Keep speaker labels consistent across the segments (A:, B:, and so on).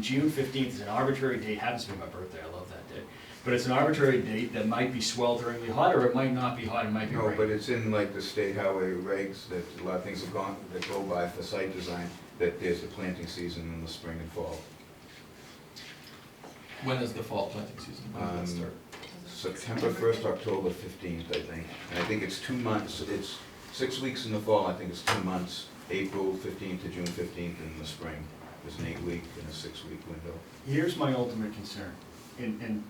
A: June fifteenth is an arbitrary date, happens to be my birthday, I love that date. But it's an arbitrary date that might be swelteringly hot, or it might not be hot, it might be
B: No, but
A: rainy.
B: it's in like the state highway regs that a lot of things have gone, that go by for site design, that there's a planting season in the spring and fall.
C: When is the fall planting season? When does that
B: Um,
C: start?
B: September first, October fifteenth, I think. And I think it's two months, it's six weeks in the fall, I think it's two months, April fifteenth to June fifteenth in the spring. There's an eight-week and a six-week window.
A: Here's my ultimate concern, and, and,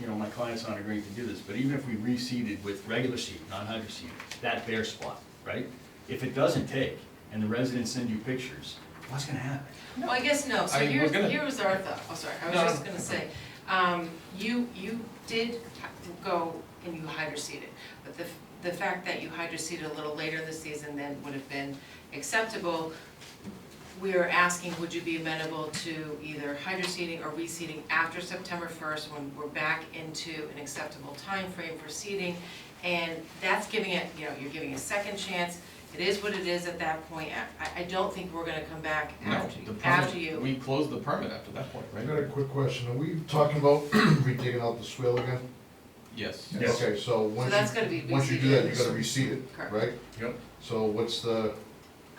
A: you know, my client's not agreeing to do this, but even if we reseeded with regular seed, non-hydro seed, that bare spot, right? If it doesn't take, and the residents send you pictures, what's gonna happen?
D: Well, I guess no, so
C: I- we're
D: here's,
C: gonna-
D: here was our thought, oh, sorry, I was
C: No,
D: just
C: no.
D: gonna say, um, you, you did go and you hydroseeded, but the, f- the fact that you hydroseeded a little later this season than would have been acceptable, we are asking, would you be amenable to either hydroseeding or reseeding after September first, when we're back into an acceptable time frame for seeding? And that's giving it, you know, you're giving a second chance, it is what it is at that point, I, I don't think we're gonna come back
C: No,
D: after,
C: the permit-
D: after you.
C: We close the permit after that point,
E: I got a
C: right?
E: quick question, are we talking about redigging out the swale again?
C: Yes.
A: Yes.
E: Okay, so once
D: that's gonna be
E: you, once you do that, you gotta reseed it, right?
D: Correct.
A: Yep.
E: So what's the,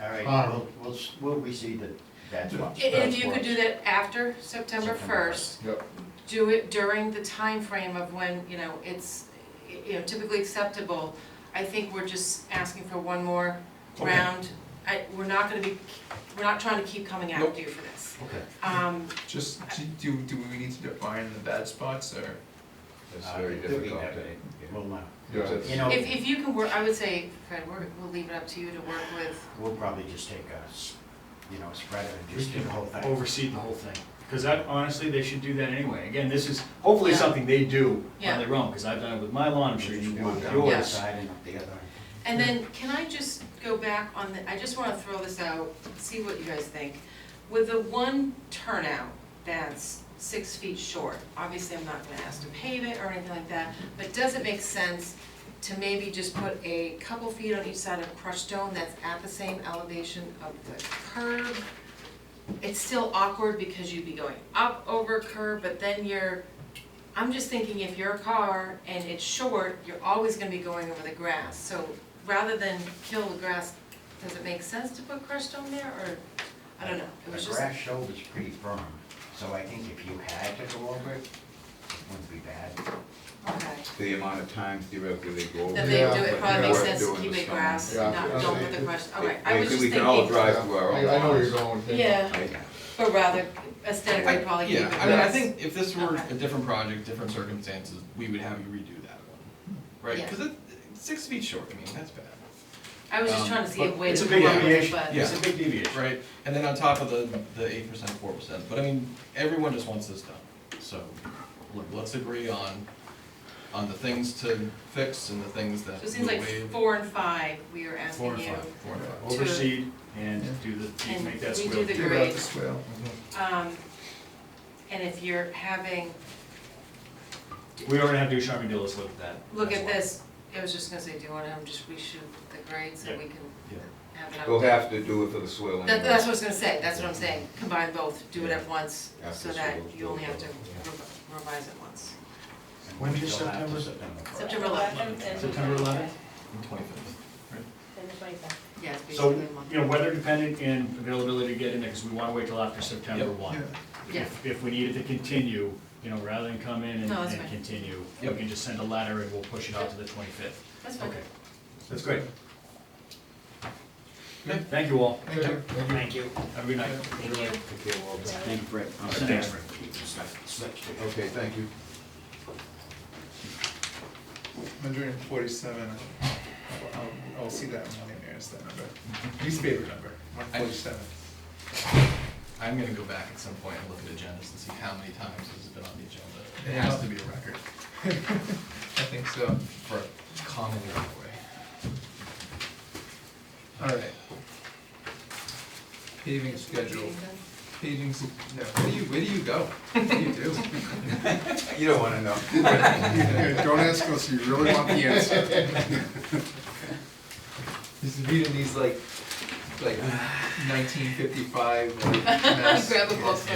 F: All right,
E: Ah.
F: we'll, we'll, s- we'll reseed the, that's what.
D: And if you could do that after September first,
E: yep,
D: do it during the time frame of when, you know, it's, you know, typically acceptable. I think we're just asking for one more
C: Okay.
D: round. I, we're not gonna be, we're not trying to keep coming
C: Nope.
D: after you for this.
A: Okay.
D: Um,
G: Just, do, do we need to define the bad spots or?
B: It's
F: Uh,
B: very
F: we
B: difficult.
F: have
B: to-
F: it.
B: yeah.
F: We'll know.
E: yeah,
B: Because
F: You
B: it's-
F: know,
D: if, if you can work, I would say, Fred, we're, we'll leave it up to you to work with,
F: we'll probably just take a, s- you know, spread it and just do the whole thing.
A: oversee the whole thing. Because that, honestly, they should do that anyway. Again, this is hopefully
D: Yeah.
A: something they do
D: Yeah.
A: on their own, because I've done it with my lawn, I'm sure you do
F: One
A: with
F: down one
A: yours.
F: side and up the other.
D: And then, can I just go back on the, I just wanna throw this out, see what you guys think. With the one turnout that's six feet short, obviously I'm not gonna ask to pave it or anything like that, but does it make sense to maybe just put a couple feet on each side of crushed stone that's at the same elevation of the curb? It's still awkward because you'd be going up over curb, but then you're, I'm just thinking if you're a car and it's short, you're always gonna be going over the grass, so rather than kill the grass, does it make sense to put crushed stone there, or, I don't know, it was
F: The
D: just.
F: grass shoulder's pretty firm, so I think if you had to go over it, it wouldn't be bad.
D: Okay,
B: The amount of time theoretically they go over.
D: then they
E: Yeah,
D: do
B: but
D: it,
B: you
D: probably
B: know
D: makes
B: what,
D: sense to
B: doing
D: keep
B: the
D: it
B: stone-
D: grass,
E: Yeah,
D: not,
E: yeah.
D: don't put the crushed, okay,
B: Yeah,
D: I was just
B: We
D: thinking.
B: can all drive to our own
E: I, I know where
B: lawns.
E: you're going. with that.
D: Yeah,
B: I-
D: but rather aesthetically probably keep it
C: Yeah,
D: grass.
C: I mean, I think if this were
D: Okay.
C: a different project, different circumstances, we would have you redo that one, right?
D: Yeah.
C: Because it, it's six feet short, I mean, that's bad,
D: I was just
C: um,
D: trying to see a
A: but
D: way
A: it's
D: to
A: a big
D: come up with it,
A: deviation.
D: but.
C: Yeah.
A: It's a big deviation.
C: right? And then on top of the, the eight percent, four percent, but I mean, everyone just wants this done. So, look, let's agree on, on the things to fix and the things that
D: So it
C: we'll
D: seems like
C: waive.
D: four and five, we are
A: Four
D: asking
A: and
D: you,
A: five.
C: Four and five.
A: Oversee and do the,
D: And
A: make that
D: we do
A: swivel.
D: the-
G: Give out the swale.
D: um, and if you're having,
A: We already have Ducharme Dillis look at that.
D: look
A: That's
D: at
A: why.
D: this, I was just gonna say, do you wanna um, just reshoot the grades and we can
A: Yeah.
D: have it up?
B: We'll have to do it for the soil.
D: That, that's what I was gonna say, that's what I'm saying, combine both, do it at once, so
B: After
D: that
B: school,
D: you only have to
B: yeah.
D: revi- revise it once.
F: And
A: When
F: we
A: is
F: still have to
A: September?
F: first.
D: September eleventh,
A: September 11th?
C: And twenty-fifth.
H: And the twenty-fifth.
D: yeah, it's
A: So,
D: basically a month.
A: you know, weather dependent and availability to get in there, because we want to wait till after September
C: Yep.
A: one.
D: Yeah.
A: If, if we needed to continue, you know, rather than come in and,
D: No, that's
A: and
D: fine.
A: continue, we
C: Yep.
A: can just send a letter and we'll push it out to the twenty-fifth.
D: That's fine.
A: Okay, that's great.
C: Okay.
A: Thank you all.
E: Thank you, thank you.
F: Thank you.
A: Have a good night.
D: Thank you.
B: Okay, well,
F: Thank you, Brett. I'll send
A: Thanks,
F: it. Stuff- stuff to you.
B: Okay, thank you.
G: Hundred and forty-seven, I'll, I'll, I'll see that in millionaires, that number,
E: Mm-hmm.
G: least favorite number, one forty-seven.
C: I'm gonna go back at some point and look at agendas and see how many times this has been on the agenda. It has to be a record
G: I think so.
C: for a common right-of-way.
G: Alright. Paving schedule, paving, s- no, where do you, where do you go? What do you do?
B: You don't wanna know.
E: Don't ask us, you really want the answer.
G: Just reading these like, like nineteen fifty-five, like, mass.
D: Grab a book.